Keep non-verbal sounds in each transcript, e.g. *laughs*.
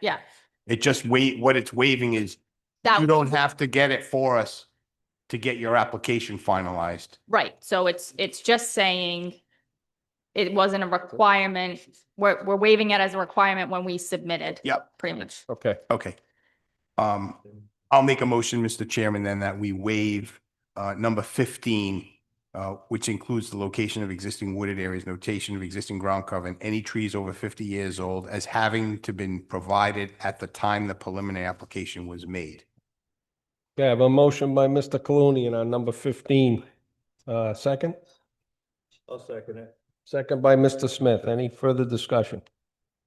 Yeah. It just wait, what it's waiving is you That, don't have to get it for us to get your application finalized. right, so it's, it's just saying it wasn't a requirement, we're, we're waiving it as a requirement when we submitted. Yep. Pretty much. Okay, Okay. Um, I'll make a motion, Mr. Chairman, then that we waive uh, number fifteen, uh, which includes the location of existing wooded areas, notation of existing ground cover, and any trees over fifty years old as having to been provided at the time the preliminary application was made. okay, I have a motion by Mr. Clooney on number fifteen. Uh, second, I'll second it. second by Mr. Smith. Any further discussion?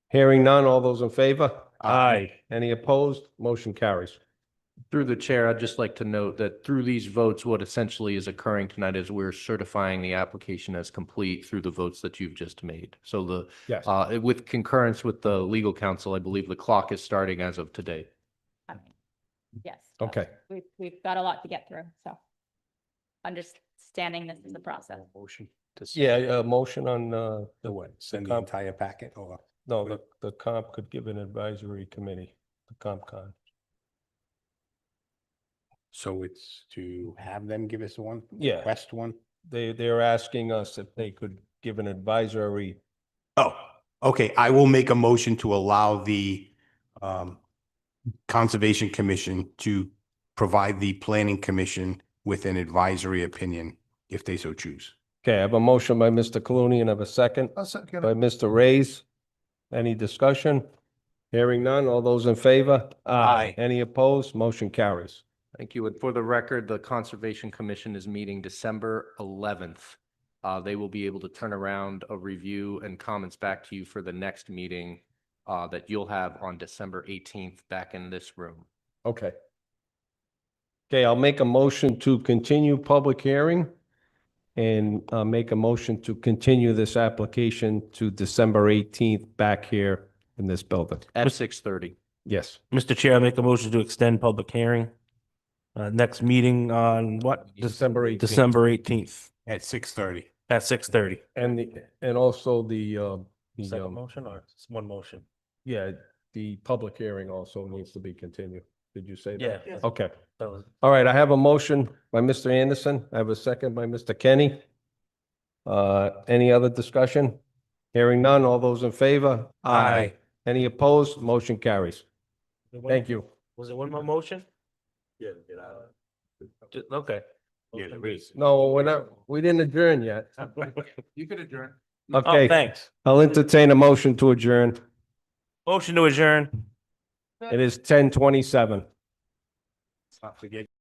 Hearing none, all those in favor? Aye. Any opposed? Motion carries. Through the chair, I'd just like to note that through these votes, what essentially is occurring tonight is we're certifying the application as complete through the votes that you've just made. So the, Yes. uh, with concurrence with the legal counsel, I believe the clock is starting as of today. I mean, Yes. Okay. We've, we've got a lot to get through, so. Understanding this is a process. Motion. Yeah, a motion on, uh, the way. Send the the entire packet or? No, the, the comp could give an advisory committee, the comp con. So it's to have them give us one? Yeah. Request one? They, they're asking us if they could give an advisory. Oh, okay. I will make a motion to allow the um Conservation Commission to provide the Planning Commission with an advisory opinion if they so choose. Okay, I have a motion by Mr. Clooney and I have a second by Mr. Ray's. Any discussion? Hearing none. All those in favor? Aye. Any opposed? Motion carries. Thank you. And for the record, the Conservation Commission is meeting December eleventh. Uh, they will be able to turn around a review and comments back to you for the next meeting uh, that you'll have on December eighteenth back in this room. Okay. Okay, I'll make a motion to continue public hearing and uh, make a motion to continue this application to December eighteenth back here in this building. At six thirty. Yes. Mr. Chair, I make a motion to extend public hearing. Uh, next meeting on what? December 18th. December eighteenth At six thirty. at six thirty. And the, and also the, uh, the, um, motion or one motion? yeah, the public hearing also needs to be continued. Did you say that? Yeah. Oh, Okay. that was- All right, I have a motion by Mr. Anderson. I have a second by Mr. Kenny. Uh, any other discussion? Hearing none. All those in favor? Aye. Any opposed? Motion carries. Thank you. Was it one more motion? Yeah, get out of it. Ju- Okay. Yeah, there *laughs* is. No, we're not, we didn't adjourn yet. You could adjourn. Oh, Okay, thanks. I'll entertain a motion to adjourn. Motion to adjourn. It is ten twenty-seven. Not forget